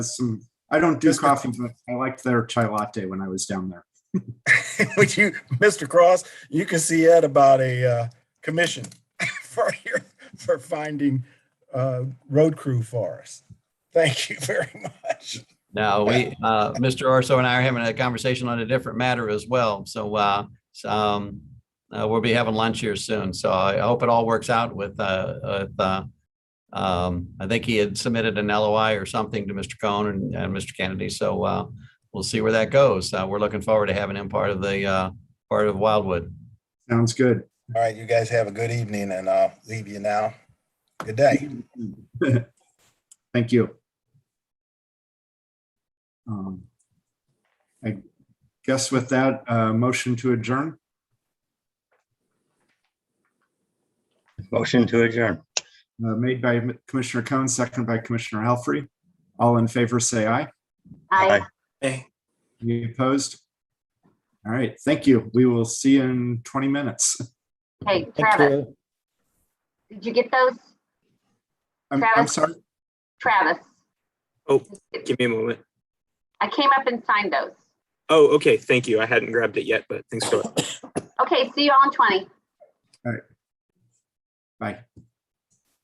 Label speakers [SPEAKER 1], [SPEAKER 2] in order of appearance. [SPEAKER 1] some, I don't do
[SPEAKER 2] Mr.
[SPEAKER 1] coffee, but I liked their chai latte when I was down there.
[SPEAKER 2] Would you, Mr. Cross, you can see Ed about a uh, commission for your, for finding uh, road crew for us. Thank you very much.
[SPEAKER 3] No, we, uh, Mr. Orso and I are having a conversation on a different matter as well. So, uh, so, um, uh, we'll be having lunch here soon. So I hope it all works out with, uh, with, uh, um, I think he had submitted an LOI or something to Mr. Cohn and, and Mr. Kennedy. So, uh, we'll see where that goes. Uh, we're looking forward to having him part of the, uh, part of Wildwood.
[SPEAKER 1] Sounds good.
[SPEAKER 2] All right, you guys have a good evening and I'll leave you now. Good day.
[SPEAKER 1] Thank you. Um, I guess with that, uh, motion to adjourn,
[SPEAKER 4] Motion to adjourn.
[SPEAKER 1] uh, made by Commissioner Cohen, second by Commissioner Helfrey. All in favor, say aye.
[SPEAKER 4] Aye.
[SPEAKER 5] Eh,
[SPEAKER 1] Any opposed? All right, thank you. We will see you in 20 minutes.
[SPEAKER 6] Hey, Travis, did you get those?
[SPEAKER 1] I'm, I'm
[SPEAKER 6] Travis.
[SPEAKER 1] sorry.
[SPEAKER 6] Travis?
[SPEAKER 5] Oh. Give me a moment.
[SPEAKER 6] I came up and signed those.
[SPEAKER 5] Oh, okay. Thank you. I hadn't grabbed it yet, but thanks for.
[SPEAKER 6] Okay, see you all in 20.
[SPEAKER 1] Bye.